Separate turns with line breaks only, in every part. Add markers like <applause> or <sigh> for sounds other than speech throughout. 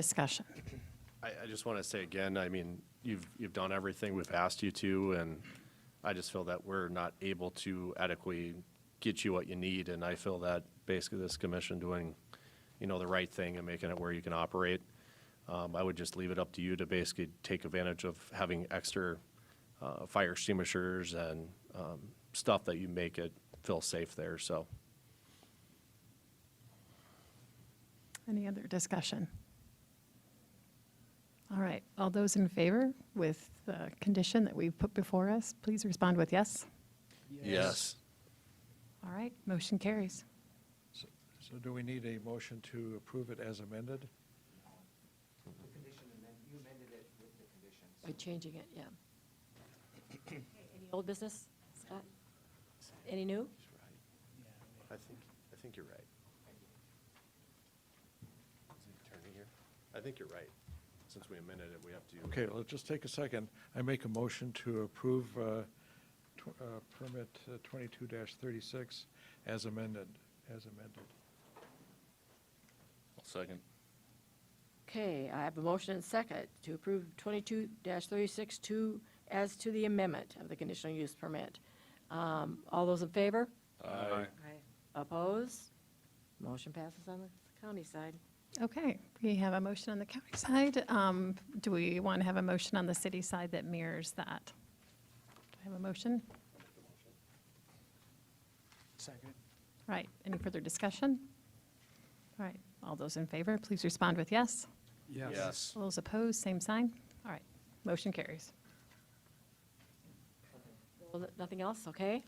Discussion.
I, I just want to say again, I mean, you've, you've done everything we've asked you to, and I just feel that we're not able to adequately get you what you need, and I feel that basically this commission doing, you know, the right thing and making it where you can operate. Um, I would just leave it up to you to basically take advantage of having extra, uh, fire extinguishers and, um, stuff that you make it feel safe there, so.
Any other discussion? All right, all those in favor with the condition that we've put before us, please respond with yes.
Yes.
All right, motion carries.
So- So do we need a motion to approve it as amended?
By changing it, yeah. Any old business, Scott? Any new?
I think, I think you're right. Is the attorney here? I think you're right. Since we amended it, we have to.
Okay, let's just take a second. I make a motion to approve uh, tw- uh, permit uh, 22-36 as amended, as amended.
Second.
Okay, I have a motion and second to approve 22-36-2 as to the amendment of the conditional use permit. Um, All those in favor?
Aye.
Opposed? Motion passes on the county side.
Okay, we have a motion on the county side. Um, Do we want to have a motion on the city side that mirrors that? Do I have a motion?
Second.
Right, any further discussion? All right, all those in favor, please respond with yes.
Yes.
All those opposed, same sign. All right, motion carries.
Well, th- Nothing else, okay?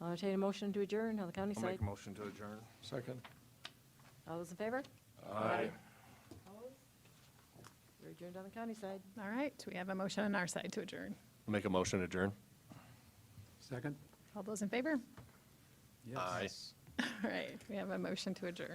I'll entertain a motion to adjourn on the county
I'll
side.
make a motion to adjourn.
Second?
All those in favor?
Aye.
We're adjourned on the county side.
All right, we have a motion on our side to adjourn.
Make a motion to adjourn?
Second?
All those in favor?
Aye.
<laughs> All right, we have a motion to adjourn.